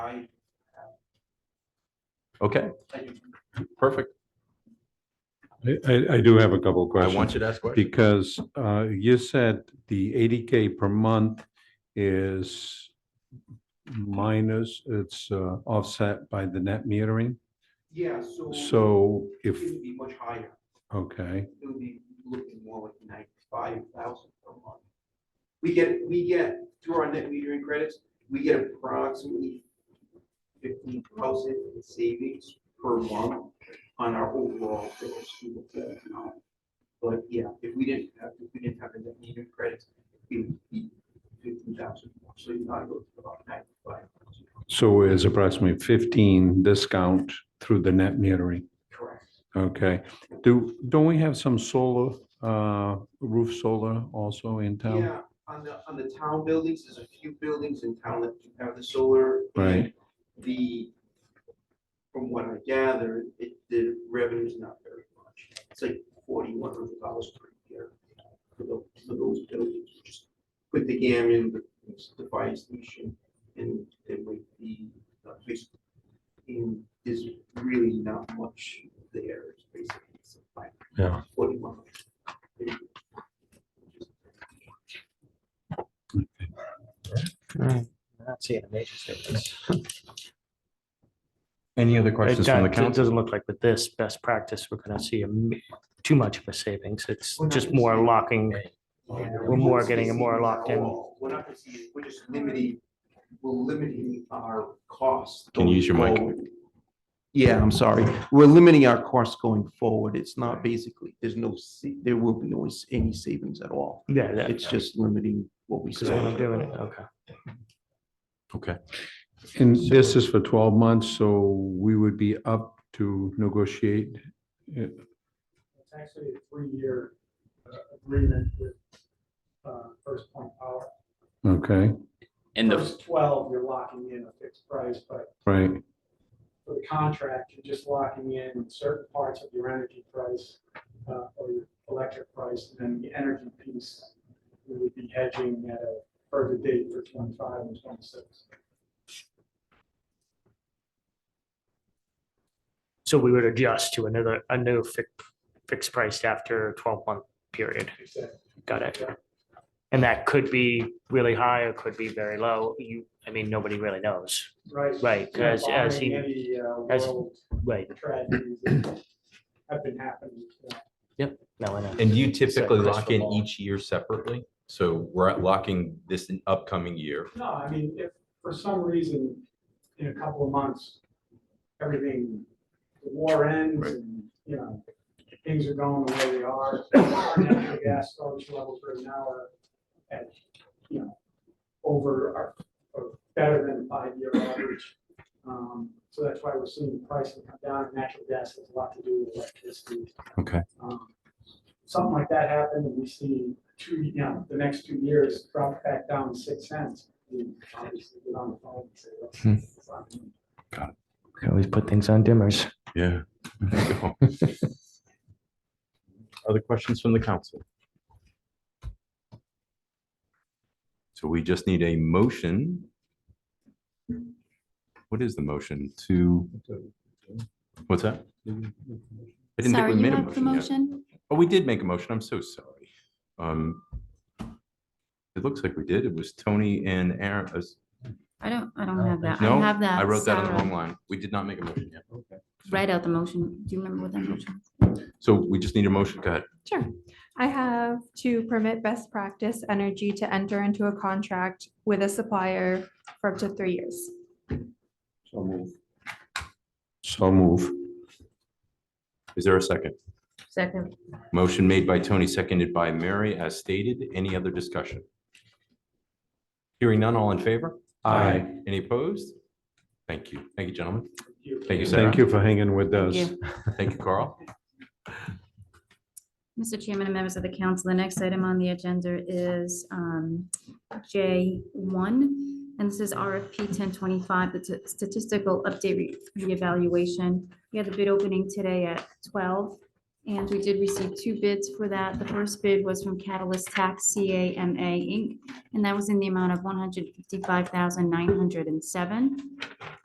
I, Okay, perfect. I, I, I do have a couple of I questions. want you to ask questions. Because, uh, you said the eighty K per month is minus, it's, uh, offset by the net metering. yeah, so. So if, It would be much higher. okay, It would be looking more like ninety-five thousand per month. We get, we get, through our net metering credits, we get approximately fifteen thousand in savings per month on our overall gross school bill amount. But yeah, if we didn't have, if we didn't have the net metering credits, it would be fifteen thousand more, so you're not looking at about ninety-five thousand. so is approximately fifteen discount through the net metering. Correct. Okay, do, don't we have some solar, uh, roof solar also in town? Yeah, on the, on the town buildings, there's a few buildings in town that do have the solar. Right. The, from what I gather, it, the revenue's not very much. It's like forty-one hundred dollars per year for those, for those buildings. Just Put the gammon, the the fire station, and then with the, uh, police. And there's really not much there, it's basically. it's like Yeah. Forty-one. Mm, I'm Not seeing a major difference. Any other It questions from the don't- it council? Doesn't look like with this best practice, we're gonna see a ma- too much of a savings. It's We're not just gonna more see it. locking. We're more getting it more locked in. We're not gonna see, it. we're just limiting, we're limiting our costs. Can you use your mic? going forward. Yeah, I'm sorry. We're limiting our costs going forward. It's not basically, there's no, sa- there will be no s- any savings at all. Yeah, that- It's just limiting what we that's what I'm spend. doing. Okay. Okay, And this is for twelve months, so we would be up to negotiate It's actually a three-year uh, agreement with uh, First Point Power. Okay, And the, First twelve, you're locking in a fixed price, but right, for the contract, you're just locking in certain parts of your energy price uh, or your electric price, and then the energy piece, we would be hedging at a further date for twenty-five and twenty-six. So we would adjust to another, a new fix- fixed price after twelve month period. Got it. And that could be really high or could be very low. You, I mean, nobody really knows. Right. Right, Yeah, as- as barring he- Any uh, as- world Right. tragedies that have been happening. uh, No, I know. and do you It's that typically lock crystal in ball. each year separately? So we're locking this in upcoming year. No, I mean, if for some reason, in a couple of months, everything, the war ends and, you know, things are going the way they are. Our natural gas storage levels right now are at, you know, over, our- or better than five-year average. Um, So that's why we're seeing the pricing come down. and Natural gas has a lot to do with electricity. Okay. Um, Something like that happened and we see two, you know, the next two years drop back down six cents. we obviously get on the phone and say, "Look, Hmm. it's not gonna Can Always put things on dimmers. Yeah. Other questions from the council? So we just need a motion. What is the motion to? What's that? I didn't think Sorry, we you made a have the motion yet. motion? Oh, we did make a motion. I'm so sorry. Um, It looks like we did. It was Tony and Aaron. uh, I don't, I don't have that. No, I have that. I wrote that on the Sarah. wrong line. We did not make a motion yet. Write out the motion. Do you remember what that motion? was? So we just need a motion. Go ahead. Sure. I have to permit best practice energy to enter into a contract with a supplier for up to three years. so move. Is there a second? Second. Motion made by Tony, seconded by Mary, as stated. Any other discussion? Hearing none, all in favor? Aye. Any opposed? Thank you. Thank you, gentlemen. be you." Thank you, Sarah. Thank you for hanging with us. you. Thank you, Carl. Mr. Chairman and members of the council, the next item on the agenda is um, J1. And this is RFP 1025, the t- statistical update re- reevaluation. We had the bid opening today at 12. And we did receive two bids for that. The first bid was from Catalyst Tax CAMA Inc., and that was in the amount of one hundred fifty-five thousand nine hundred and seven.